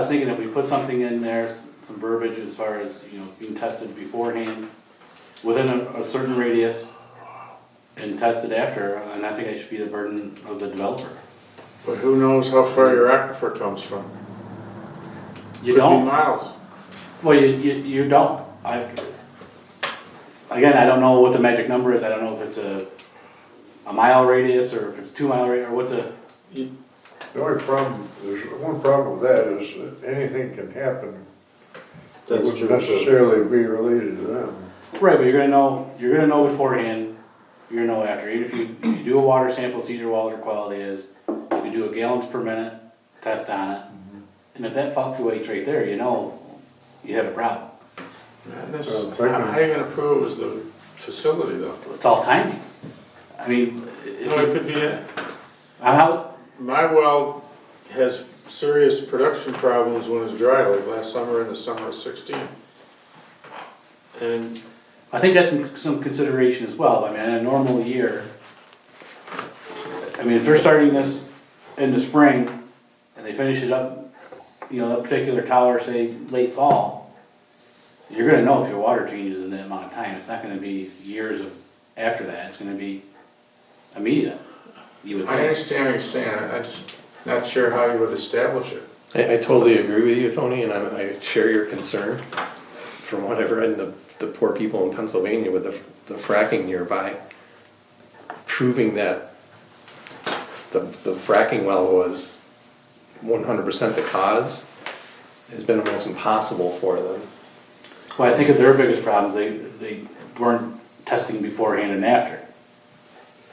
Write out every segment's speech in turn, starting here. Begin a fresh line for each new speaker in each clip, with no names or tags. thinking if we put something in there, some verbiage as far as, you know, being tested beforehand, within a, a certain radius, and tested after, and I think it should be the burden of the developer.
But who knows how far your aquifer comes from?
You
Could be
don't,
Miles.
well, you, you, you don't, I, again, I don't know what the magic number is, I don't know if it's a, a mile radius, or if it's two mile radius, or what the,
The only problem, there's one problem with that is that anything can happen that
That's
wouldn't
true, too.
necessarily be related to them.
Right, but you're gonna know, you're gonna know beforehand, you're gonna know after, even if you, you do a water sample, see your water quality is, you can do a gallons per minute test on it. And if that fluctuates right there, you know, you have a problem,
And this,
Uh,
how
thank you.
how you gonna prove it was the facility though?
it's all timing. I mean,
No, it
if,
could be, a-
I'm how,
my well has serious production problems when it's dry, like last summer and the summer of sixteen. And
I think that's some, some consideration as well, I mean, in a normal year. I mean, if they're starting this in the spring, and they finish it up, you know, that particular tower, say, late fall, you're gonna know if your water changes in that amount of time, it's not gonna be years of, after that, it's gonna be immediate, you would
I
think.
understand what you're saying, I- I'm just not sure how you would establish it.
I, I totally agree with you, Tony, and I, I share your concern from what I've read in the, the poor people in Pennsylvania with the, the fracking nearby. Proving that the, the fracking well was one hundred percent the cause has been almost impossible for them.
Well, I think of their biggest problem, they, they weren't testing beforehand and after.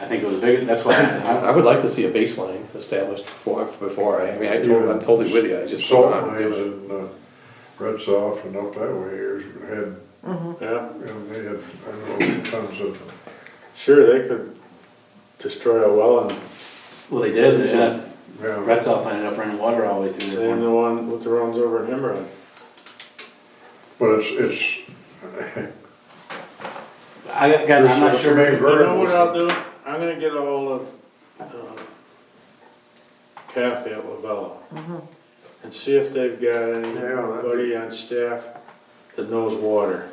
I think it was big, that's why, I-
I would like to see a baseline established before, before, I I mean, I told, I'm totally with you, I just don't
Salt
know how to do
mines
it.
and, uh, Red Soft and up that way years had,
Yeah.
you know, they had, I don't know, tons of,
Sure, they could destroy a well and
well, they did, they did.
yeah.
Red Sox ended up running water all the way through
same
there.
the one with the runs over in Himmerland.
But it's, it's,
I, again, I'm not
There's
sure.
some main
You know what
variables.
I'll do? I'm gonna get ahold of um, Kathy at Lavella and see if they've got
Yeah, that'd
anybody on staff that knows water.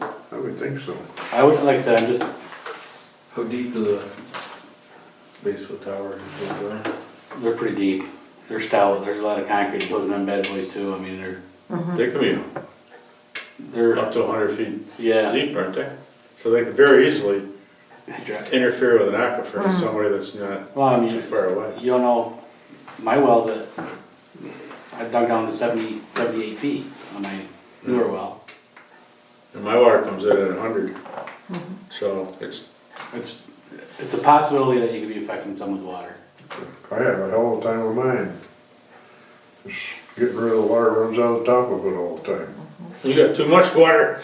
I would think so.
I would, like I said, I'm just,
How deep do the base of the tower go down?
they're pretty deep. They're stout. There's a lot of concrete that goes in them bad boys too. I mean, they're,
They could be
they're,
up to hundred feet
yeah.
deep, aren't they? So they could very easily
Well,
interfere with an aquifer to somebody that's not
I mean,
too far away.
you don't know, my well's at, I dug down to 70, 78 feet on my newer well.
And my water comes in at hundred, so it's,
It's, it's a possibility that you could be affecting someone's water.
I have it all the time with mine. Just getting rid of the water runs out the top of it all the time.
you got too much water.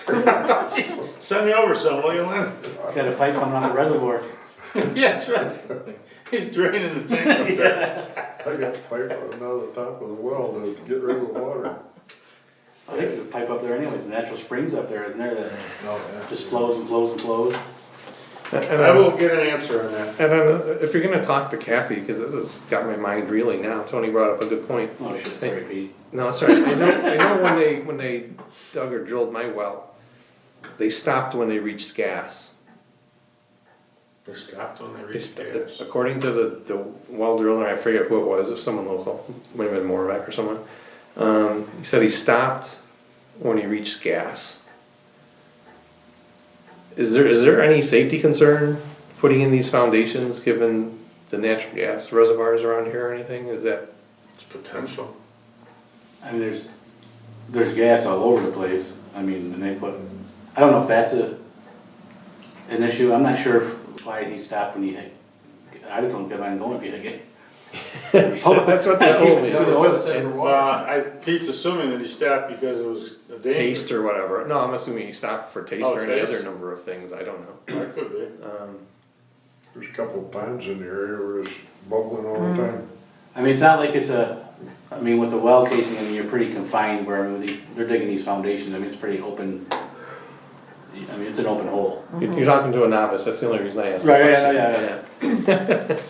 Send me over some, will you, Lynn?
It's got a pipe coming out of the reservoir.
Yeah, that's right. He's draining the tank up there.
I got pipe running out of the top of the well to get rid of the water.
I think there's a pipe up there anyways, the natural springs up there, isn't there, that just flows and flows and flows?
And
I will get an answer on that.
And then, uh, if you're gonna talk to Kathy, because this has got my mind reeling now, Tony brought up a good point.
Oh shit, sorry Pete.
No, sorry, I know, I know when they, when they dug or drilled my well, they stopped when they reached gas.
They stopped when they
They
reached
st-
gas.
According to the, the well driller, I forget who it was, it was someone local, might have been Morvac or someone. Um, he said he stopped when he reached gas. Is there, is there any safety concern putting in these foundations, given the natural gas reservoirs around here or anything, is that?
It's potential.
I mean, there's, there's gas all over the place, I mean, and they put, I don't know if that's a, an issue, I'm not sure if- why he stopped when he had, I just don't get on going if he had gas.
Oh, That's what they told me.
Keep it going.
Well, I, Pete's assuming that he stopped because it was a danger.
taste or whatever. No, I'm assuming you stopped for taste
Oh,
or any
taste.
other number of things. I don't know.
Or it could be.
Um,
There's a couple of ponds in the area where it's bubbling all the time.
I mean, it's not like it's a, I mean, with the well casing, I mean, you're pretty confined where, I mean, they- they're digging these foundations, I mean, it's pretty open. I mean, it's an open hole.
you- You're talking to a novice. That's the only reason I asked. the
Mm-hmm. Right, yeah,
question.
yeah,